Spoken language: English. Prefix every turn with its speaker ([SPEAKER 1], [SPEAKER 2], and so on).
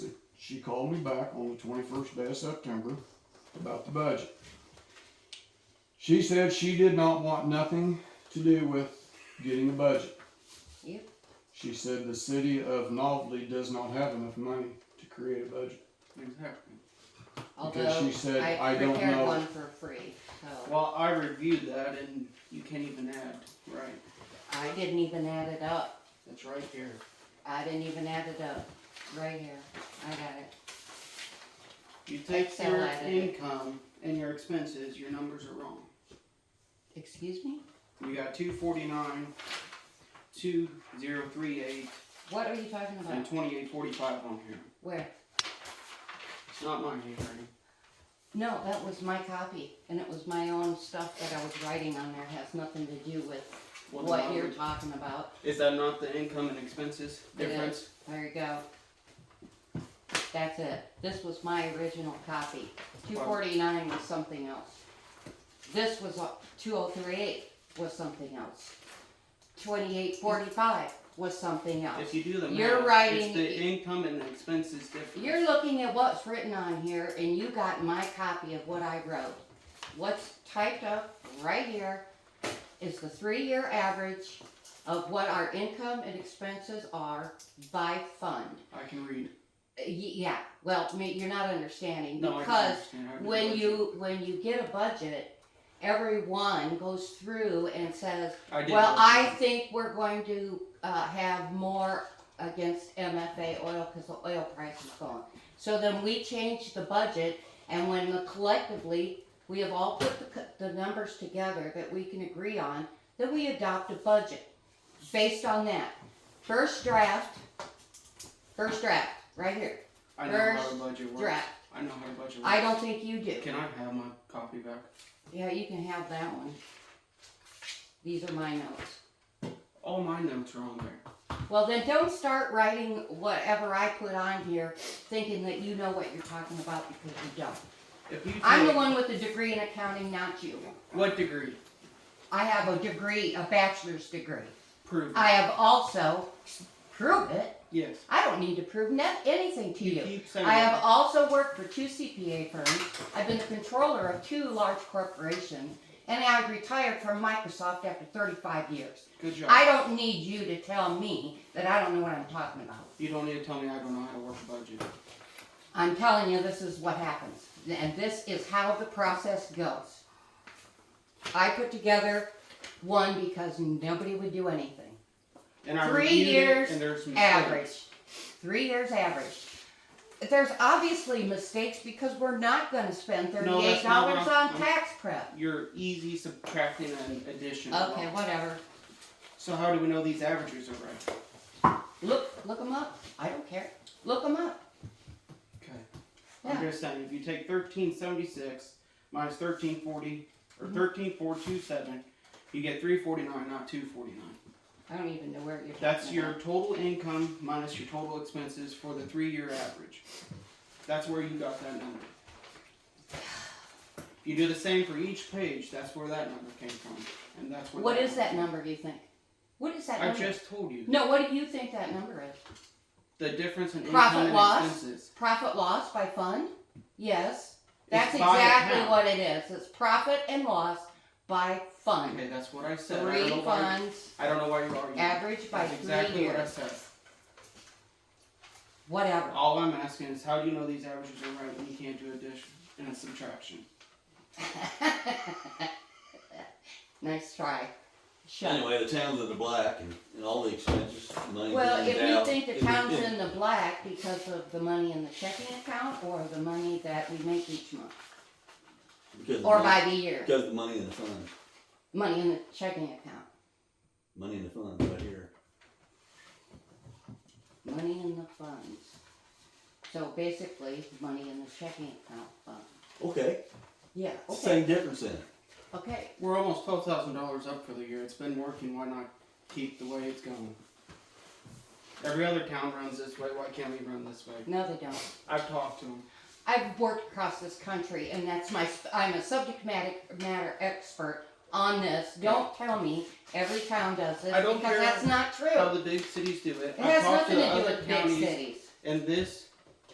[SPEAKER 1] She called me back on the twenty-first day of September about the budget. She said she did not want nothing to do with getting a budget.
[SPEAKER 2] Yep.
[SPEAKER 1] She said the city of Novelty does not have enough money to create a budget.
[SPEAKER 3] Exactly.
[SPEAKER 1] Because
[SPEAKER 2] Although
[SPEAKER 1] she said,
[SPEAKER 2] I
[SPEAKER 1] I don't
[SPEAKER 2] prepared
[SPEAKER 1] know.
[SPEAKER 2] one for free, so
[SPEAKER 3] Well, I reviewed that and you can't even add, right?
[SPEAKER 2] I didn't even add it up.
[SPEAKER 3] It's right here.
[SPEAKER 2] I didn't even add it up. Right here. I got it.
[SPEAKER 3] You take
[SPEAKER 2] Excel
[SPEAKER 3] your
[SPEAKER 2] added it.
[SPEAKER 3] income and your expenses, your numbers are wrong.
[SPEAKER 2] Excuse me?
[SPEAKER 3] You got two forty-nine, two zero three eight,
[SPEAKER 2] What are you talking
[SPEAKER 3] and
[SPEAKER 2] about?
[SPEAKER 3] twenty-eight forty-five on here.
[SPEAKER 2] Where?
[SPEAKER 3] It's not my handwriting.
[SPEAKER 2] No, that was my copy, and it was my own stuff that I was writing on there. Has nothing to do with
[SPEAKER 3] Well,
[SPEAKER 2] what
[SPEAKER 3] then
[SPEAKER 2] you're
[SPEAKER 3] I-
[SPEAKER 2] talking about.
[SPEAKER 3] Is that not the income and expenses
[SPEAKER 2] It is.
[SPEAKER 3] difference?
[SPEAKER 2] There you go. That's it. This was my original copy. Two forty-nine was something else. This was, two oh three eight was something else. Twenty-eight forty-five was something
[SPEAKER 3] If
[SPEAKER 2] else.
[SPEAKER 3] you do the math,
[SPEAKER 2] You're
[SPEAKER 3] it's
[SPEAKER 2] writing-
[SPEAKER 3] the income and the expenses difference.
[SPEAKER 2] You're looking at what's written on here, and you got my copy of what I wrote. What's typed up right here is the three-year average of what our income and expenses are by fund.
[SPEAKER 3] I can read.
[SPEAKER 2] Y- Yeah, well, ma- you're not understanding
[SPEAKER 3] No, I can
[SPEAKER 2] because
[SPEAKER 3] understand. I read
[SPEAKER 2] when
[SPEAKER 3] what
[SPEAKER 2] you when you get a budget, everyone goes through and says,
[SPEAKER 3] I did
[SPEAKER 2] "Well,
[SPEAKER 3] what you
[SPEAKER 2] I
[SPEAKER 3] said.
[SPEAKER 2] think we're going to uh, have more against MFA oil because the oil price is going." So then we change the budget, and when the, collectively we have all put the, co- the numbers together that we can agree on, then we adopt a budget based on that. First draft, first draft, right here.
[SPEAKER 3] I know how
[SPEAKER 2] first
[SPEAKER 3] a budget works.
[SPEAKER 2] Draft.
[SPEAKER 3] I know how a budget works.
[SPEAKER 2] I don't think you do.
[SPEAKER 3] Can I have my copy back?
[SPEAKER 2] Yeah, you can have that one. These are my notes.
[SPEAKER 3] All my notes are on there.
[SPEAKER 2] Well, then don't start writing whatever I put on here thinking that you know what you're talking about because you don't.
[SPEAKER 3] If you
[SPEAKER 2] I'm the
[SPEAKER 3] take-
[SPEAKER 2] one with a degree in accounting, not you.
[SPEAKER 3] What degree?
[SPEAKER 2] I have a degree, a bachelor's degree.
[SPEAKER 3] Prove. it.
[SPEAKER 2] I have also, prove it,
[SPEAKER 3] Yes.
[SPEAKER 2] I don't need to prove net anything to you.
[SPEAKER 3] keep saying
[SPEAKER 2] I have
[SPEAKER 3] that.
[SPEAKER 2] also worked for two CPA firms. I've been the controller of two large corporations, and I've retired from Microsoft after 35 years.
[SPEAKER 3] Good job.
[SPEAKER 2] I don't need you to tell me that I don't know what I'm talking about.
[SPEAKER 3] You don't need to tell me I don't know how to work a budget.
[SPEAKER 2] I'm telling you, this is what happens, and this is how the process goes. I put together one because nobody would do anything.
[SPEAKER 3] And I
[SPEAKER 2] Three
[SPEAKER 3] reviewed it,
[SPEAKER 2] years
[SPEAKER 3] and there's mistakes.
[SPEAKER 2] average. Three years average. There's obviously mistakes because we're not gonna spend
[SPEAKER 3] No,
[SPEAKER 2] thirty-eight
[SPEAKER 3] that's not what
[SPEAKER 2] dollars
[SPEAKER 3] I'm-
[SPEAKER 2] on tax prep.
[SPEAKER 3] You're easy subtracting and addition.
[SPEAKER 2] Okay, whatever.
[SPEAKER 3] So how do we know these averages are right?
[SPEAKER 2] Look, look them up. I don't care. Look them up.
[SPEAKER 3] Okay. I'm
[SPEAKER 2] Yeah.
[SPEAKER 3] just saying, if you take thirteen seventy-six minus thirteen forty, or
[SPEAKER 2] Mm-hmm.
[SPEAKER 3] thirteen four two seven, you get three forty-nine, not two forty-nine.
[SPEAKER 2] I don't even know where you're talking
[SPEAKER 3] That's your
[SPEAKER 2] about.
[SPEAKER 3] total income minus your total expenses for the three-year average. That's where you got that number. If You do the same for each page, that's where that number came from, and that's where.
[SPEAKER 2] What is that number, do you think? What is that
[SPEAKER 3] I
[SPEAKER 2] number?
[SPEAKER 3] just told you,
[SPEAKER 2] No, what do you think that number is?
[SPEAKER 3] the difference in
[SPEAKER 2] Profit
[SPEAKER 3] income
[SPEAKER 2] loss?
[SPEAKER 3] and expenses.
[SPEAKER 2] Profit loss by fund? Yes.
[SPEAKER 3] It's
[SPEAKER 2] That's
[SPEAKER 3] by
[SPEAKER 2] exactly
[SPEAKER 3] account.
[SPEAKER 2] what it is. It's profit and loss by fund.
[SPEAKER 3] Okay, that's what I said, I don't know
[SPEAKER 2] Three
[SPEAKER 3] why,
[SPEAKER 2] funds,
[SPEAKER 3] I don't know why you're arguing.
[SPEAKER 2] average by
[SPEAKER 3] That's
[SPEAKER 2] three
[SPEAKER 3] exactly what I
[SPEAKER 2] years,
[SPEAKER 3] said.
[SPEAKER 2] whatever.
[SPEAKER 3] All I'm asking is how do you know these averages are right when you can't do addition and a subtraction?
[SPEAKER 2] nice try. Shut.
[SPEAKER 4] Anyway, the town's in the black and, and all the expenses, money.
[SPEAKER 2] Well,
[SPEAKER 4] going
[SPEAKER 2] if
[SPEAKER 4] down,
[SPEAKER 2] you think
[SPEAKER 4] it
[SPEAKER 2] the
[SPEAKER 4] would-
[SPEAKER 2] town's
[SPEAKER 4] it-
[SPEAKER 2] in the black because of the money in the checking account or the money that we make each month,
[SPEAKER 4] because of
[SPEAKER 2] or
[SPEAKER 4] the-
[SPEAKER 2] by the year,
[SPEAKER 4] Because of the money in the fund,
[SPEAKER 2] money in the checking account,
[SPEAKER 4] money in the fund right here.
[SPEAKER 2] money in the funds. So basically, money in the checking account fund.
[SPEAKER 4] Okay,
[SPEAKER 2] Yeah, okay,
[SPEAKER 4] same difference then.
[SPEAKER 2] okay.
[SPEAKER 3] We're almost twelve thousand dollars up for the year. It's been working. Why not keep the way it's going? Every other town runs this way. Why can't we run this way?
[SPEAKER 2] No, they don't.
[SPEAKER 3] I've talked to them.
[SPEAKER 2] I've worked across this country, and that's my, I'm a subject matter, matter expert on this. Don't tell me every town does this,
[SPEAKER 3] I don't
[SPEAKER 2] because
[SPEAKER 3] care
[SPEAKER 2] that's not true.
[SPEAKER 3] How the big cities do it.
[SPEAKER 2] It
[SPEAKER 3] I've
[SPEAKER 2] has
[SPEAKER 3] talked
[SPEAKER 2] nothing
[SPEAKER 3] the
[SPEAKER 2] to do
[SPEAKER 3] other
[SPEAKER 2] with big
[SPEAKER 3] counties,
[SPEAKER 2] cities.
[SPEAKER 3] And this